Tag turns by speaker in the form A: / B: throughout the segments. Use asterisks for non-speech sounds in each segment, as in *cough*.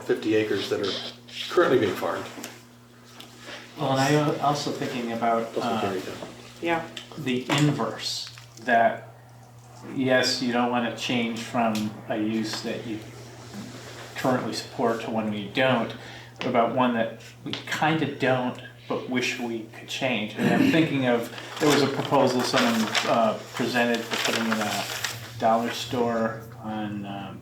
A: 50 acres that are currently being farmed.
B: Well, and I'm also thinking about
A: Doesn't
B: uh,
A: carry that.
C: Yeah,
B: the inverse, that, yes, you don't want to change from a use that you currently support to one we don't, but about one that we kind of don't, but wish we could change. And I'm thinking of, there was a proposal someone uh, presented for putting in a dollar store on um,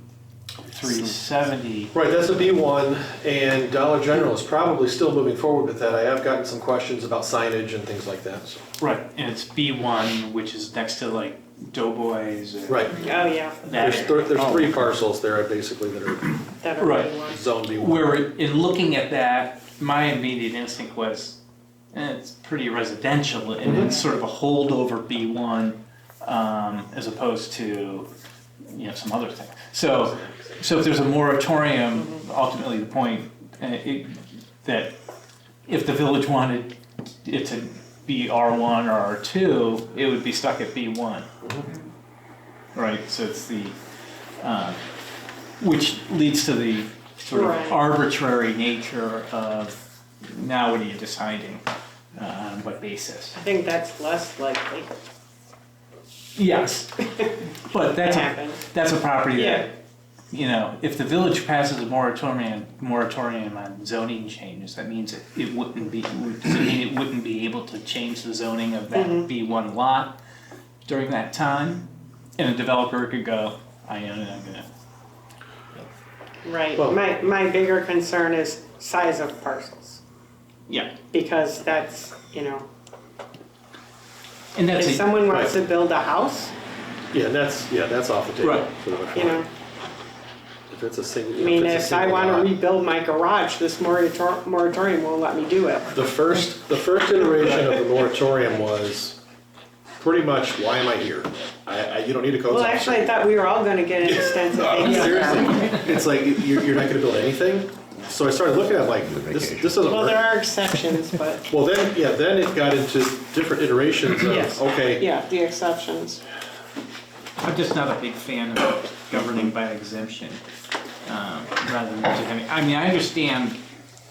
B: 370.
A: Right, that's a B1, and Dollar General is probably still moving forward with that. I have gotten some questions about signage and things like that, so.
B: Right. And it's B1, which is next to like Doughboys or.
A: Right,
C: oh, yeah,
B: that
A: there's,
B: area.
A: thir- there's three parcels there basically that are
C: that are
B: Right.
C: really ones.
A: zone B1.
B: Oh. Where in looking at that, my immediate instinct was, eh, it's pretty residential, and
A: Mm-hmm.
B: it's sort of a holdover B1 um, as opposed to you know some other thing. So, so if there's a moratorium, ultimately the point uh, it, that if the village wanted it to be R1 or R2, it would be stuck at B1. Right. So it's the uh, which leads to the sort
C: Right.
B: of arbitrary nature of now what are you deciding uh, on what basis?
C: I think that's less likely
B: Yes, but
C: to
B: that's a,
C: happen.
B: that's a property
C: Yeah,
B: that, you know, if the village passes a moratorium, moratorium on zoning changes, that means it, it wouldn't be, would- does it mean it wouldn't be able to change the zoning of that B one lot during that time? And a developer could go, I own it, I'm gonna,
C: right.
A: Well-
C: My, my bigger concern is size of parcels,
B: yeah,
C: because that's, you know,
B: and
C: if
B: that's a,
C: someone wants to build a house,
A: Yeah, and that's, yeah, that's off the table.
B: Right.
A: for the most
C: you
A: part.
C: know,
A: If it's a single.
C: I mean,
A: it's a
C: if I
A: single lot.
C: wanna rebuild my garage, this morator- moratorium won't let me do it.
A: The first, the first iteration
C: *laughs*
A: of the moratorium was pretty much, why am I here? I, I, you don't need a codes
C: Well,
A: officer.
C: actually, I thought we were all gonna get an extensive.
A: No,
C: vacation.
A: seriously, it's like, you're, you're not gonna build anything? So I started looking at it like, this, this doesn't
C: Well, there
A: work.
C: are exceptions, but,
A: Well, then, yeah, then it got into different iterations
C: Yes.
A: of, okay,
C: yeah, the exceptions.
B: I'm just not a big fan of governing by exemption, um, rather than just having, I mean, I understand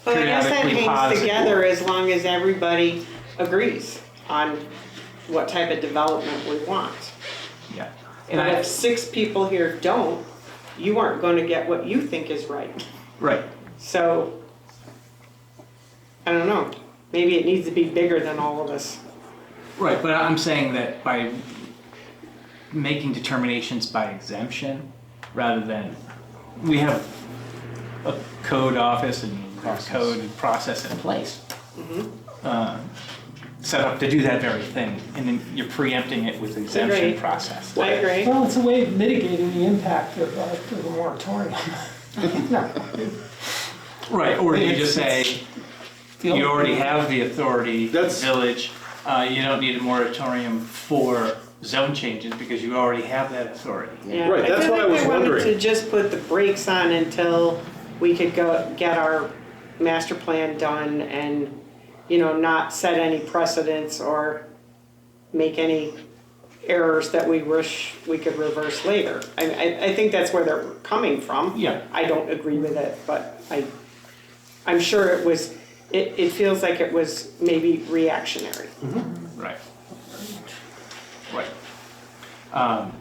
C: But I guess that
B: periodically
C: hangs
B: positive.
C: together as long as everybody agrees on what type of development we want.
B: Yeah. And
C: But
B: I,
C: if six people here don't, you aren't gonna get what you think is right.
B: right,
C: So, I don't know, maybe it needs to be bigger than all of us.
B: right, but I'm saying that by making determinations by exemption, rather than, we have a code office and our code and process in place. uh, Set up to do that very thing, and then you're preempting it with exemption
C: Agreed.
B: process.
C: I agree.
D: Well, it's a way of mitigating the impact of, uh, of the moratorium. No,
B: Right, or you
D: It's-
B: just say,
D: the
B: you
D: only-
B: already have the authority,
A: That's-
B: village, uh, you don't need a moratorium for zone changes because you already have that authority.
C: Yeah,
A: Right, that's what I was
C: I feel like they wanted
A: wondering.
C: to just put the brakes on until we could go, get our master plan done and, you know, not set any precedents or make any errors that we wish we could reverse later. I, I, I think that's where they're coming from.
B: Yeah.
C: I don't agree with it, but I, I'm sure it was, it, it feels like it was maybe reactionary.
B: Right. Right. Um,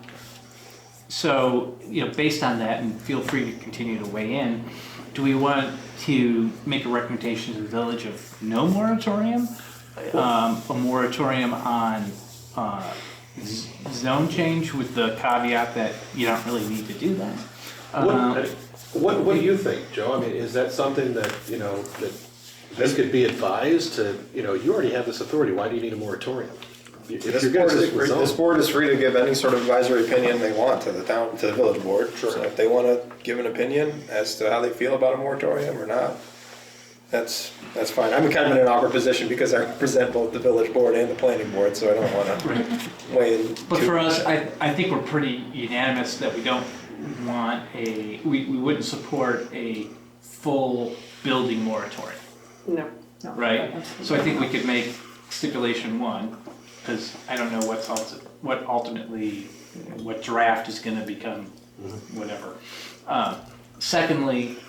B: So, you know, based on that, and feel free to continue to weigh in, do we want to make a recommendation to the village of no moratorium? Um, A moratorium on uh, z- zone change with the caveat that you don't really need to do that? Uh,
C: Uh-huh.
A: what, what, what do you think, Joe? I mean, is that something that, you know, that this could be advised to, you know, you already have this authority, why do you need a moratorium? If
E: This
A: you're gonna
E: board, is
A: stick with
E: free, this
A: zone.
E: board is free to give any sort of advisory opinion they want to the town, to the village board. So if they want to give an opinion as to how they feel about a moratorium or not, that's, that's fine. I'm kind of in an awkward position because I *laughs* represent both the village board and the planning board, so I don't want to weigh in.
B: But
E: too-
B: for us, I, I think we're pretty unanimous that we don't want a, we, we wouldn't support a full building moratorium,
A: Mm-hmm.
C: No.
D: no,
B: right?
D: that's-
B: So I think we could make stipulation one, because I don't know what's also, what ultimately, what draft is gonna become, whatever. Uh, Um, Secondly,